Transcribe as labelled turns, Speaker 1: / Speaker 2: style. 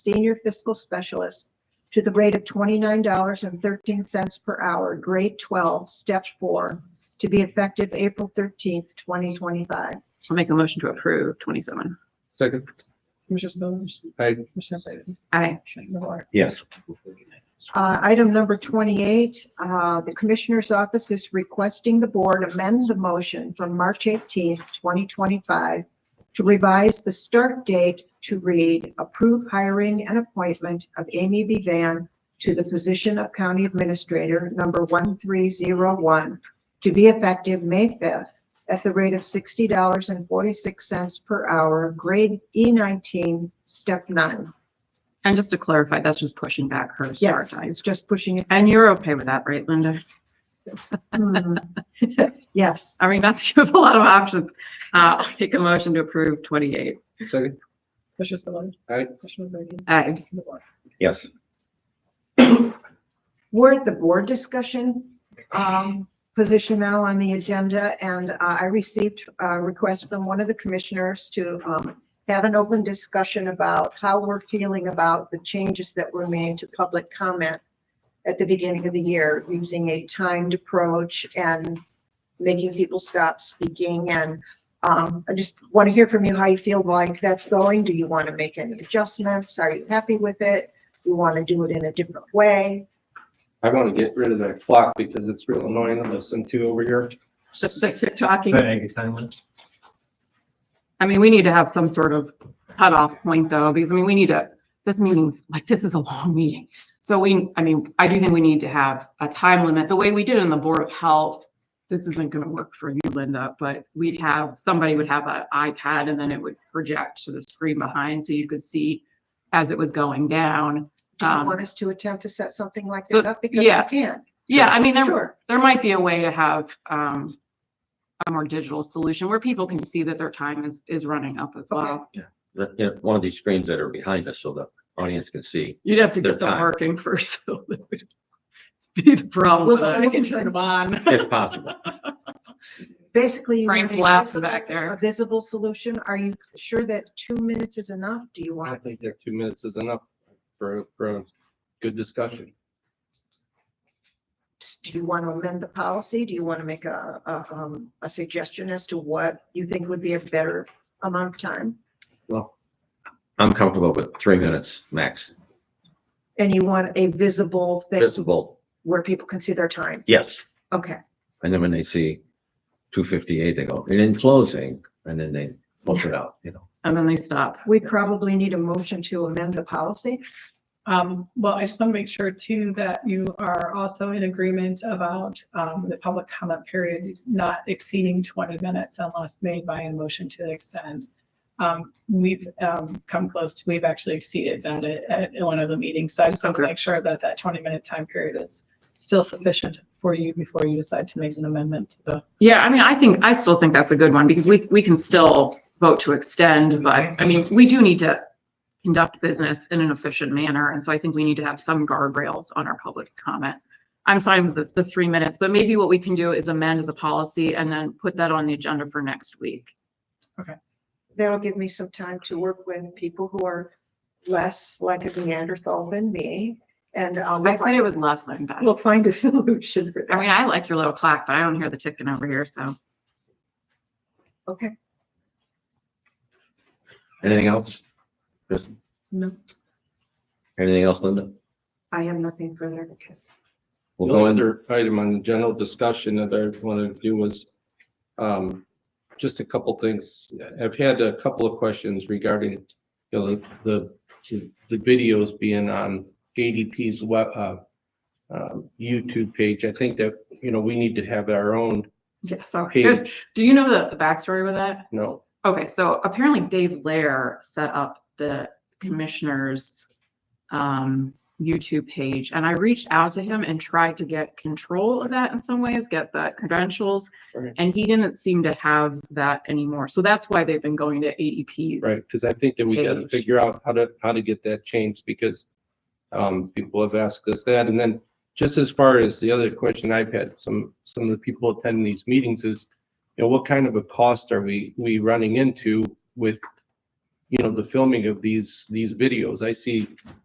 Speaker 1: senior fiscal specialist to the rate of twenty-nine dollars and thirteen cents per hour, grade twelve, step four, to be effective April thirteenth, twenty twenty-five.
Speaker 2: I'll make a motion to approve twenty-seven.
Speaker 3: Second.
Speaker 4: Commissioner Spillers.
Speaker 3: Aye.
Speaker 4: Commissioner Slater.
Speaker 2: Aye.
Speaker 4: Commissioner Navarro.
Speaker 5: Yes.
Speaker 1: Uh, item number twenty-eight, uh, the Commissioner's Office is requesting the board amend the motion from March eighteenth, twenty twenty-five to revise the start date to read approve hiring and appointment of Amy B. Van to the position of County Administrator number one three zero one to be effective May fifth at the rate of sixty dollars and forty-six cents per hour, grade E nineteen, step nine.
Speaker 2: And just to clarify, that's just pushing back her start
Speaker 1: Yes,
Speaker 2: time.
Speaker 1: it's just pushing it.
Speaker 2: And you're okay with that, right, Linda?
Speaker 1: Hmm. Yes.
Speaker 2: I mean, not to give a lot of options. Uh, I'll make a motion to approve twenty-eight.
Speaker 3: Second.
Speaker 4: Commissioner Spillers.
Speaker 3: Aye.
Speaker 4: Commissioner Brady.
Speaker 2: Aye.
Speaker 4: Commissioner Navarro.
Speaker 5: Yes.
Speaker 1: We're at the board discussion um, position now on the agenda, and uh, I received a request from one of the commissioners to um, have an open discussion about how we're feeling about the changes that were made to public comment at the beginning of the year, using a timed approach and making people stop speaking. And um, I just want to hear from you how you feel like that's going. Do you want to make any adjustments? Are you happy with it? You want to do it in a different way?
Speaker 3: I want to get rid of that clock because it's real annoying to listen to over here.
Speaker 2: Just that you're talking.
Speaker 6: Thank you.
Speaker 2: I mean, we need to have some sort of cutoff point though, because I mean, we need to, this meeting's, like, this is a long meeting. So we, I mean, I do think we need to have a time limit. The way we did it in the Board of Health, this isn't gonna work for you, Linda, but we'd have, somebody would have an iPad and then it would project to the screen behind so you could see as it was going down.
Speaker 1: Do you
Speaker 2: Um,
Speaker 1: want us to attempt to set something like
Speaker 2: so,
Speaker 1: that up? Because we
Speaker 2: yeah.
Speaker 1: can.
Speaker 2: Yeah, I mean, there,
Speaker 1: Sure.
Speaker 2: there might be a way to have, um, a more digital solution where people can see that their time is, is running up as
Speaker 1: Okay.
Speaker 2: well.
Speaker 5: The- you know, one of these screens that are behind us so the audience can see.
Speaker 2: You'd have to
Speaker 5: Their
Speaker 2: get them
Speaker 5: time.
Speaker 2: working first, though. That would Be the problem.
Speaker 1: We'll
Speaker 2: but I
Speaker 1: see.
Speaker 2: can turn them on.
Speaker 5: If possible.
Speaker 1: Basically. you want
Speaker 2: Frank's
Speaker 1: a
Speaker 2: laughs
Speaker 1: visible-
Speaker 2: back there.
Speaker 1: A visible solution. Are you sure that two minutes is enough? Do you
Speaker 3: I
Speaker 1: want?
Speaker 3: don't think that two minutes is enough for, for a good discussion.
Speaker 1: Do you want to amend the policy? Do you want to make a, a, um, a suggestion as to what you think would be a better amount of time?
Speaker 5: Well, I'm comfortable with three minutes max.
Speaker 1: And you want a visible thing
Speaker 5: Visible,
Speaker 1: where people can see their time?
Speaker 5: yes.
Speaker 1: Okay.
Speaker 5: And then when they see two fifty-eight, they go, and in closing, and then they post it out, you know.
Speaker 2: And then they stop.
Speaker 1: We probably need a motion to amend the policy.
Speaker 4: Um, well, I just want to make sure too that you are also in agreement about, um, the public comment period not exceeding twenty minutes unless made by a motion to extend. Um, we've, um, come close to, we've actually exceeded that at, at one of the meetings. So I just want to
Speaker 2: Okay.
Speaker 4: make sure that that twenty minute time period is still sufficient for you before you decide to make an amendment to the.
Speaker 2: Yeah, I mean, I think, I still think that's a good one because we, we can still vote to extend, but I mean, we do need to conduct business in an efficient manner. And so I think we need to have some guardrails on our public comment. I'm fine with the, the three minutes, but maybe what we can do is amend the policy and then put that on the agenda for next week.
Speaker 1: That'll give me some time to work with people who are less like a Neanderthal than me and. um,
Speaker 2: I said it was less than that.
Speaker 1: We'll find a solution for
Speaker 2: I
Speaker 1: that.
Speaker 2: mean, I like your little clock, but I don't hear the ticking over here, so.
Speaker 1: Okay.
Speaker 5: Anything else? Just
Speaker 4: No.
Speaker 5: anything else, Linda?
Speaker 1: I have nothing further.
Speaker 5: We'll
Speaker 3: The
Speaker 5: go under,
Speaker 3: other item on the general discussion that I wanted to do was, um, just a couple things. I've had a couple of questions regarding, you know, the, the videos being on ADP's web, uh, um, YouTube page. I think that, you know, we need to have our own
Speaker 2: Yeah, sorry. There's,
Speaker 3: page,
Speaker 2: do you know the, the backstory with that?
Speaker 3: you know,
Speaker 2: Okay, so apparently Dave Lair set up the commissioner's um, YouTube page, and I reached out to him and tried to get control of that in some ways, get the credentials,
Speaker 3: Right.
Speaker 2: and he didn't seem to have that anymore. So that's why they've been going to E ADP's.
Speaker 3: Right, because I think that we gotta
Speaker 2: Page.
Speaker 3: figure out how to, how to get that changed, because um, people have asked us that, and then just as far as the other question I've had, some, some of the people attending these meetings is, you know, what kind of a cost are we, we running into with you know, the filming of these, these videos. I see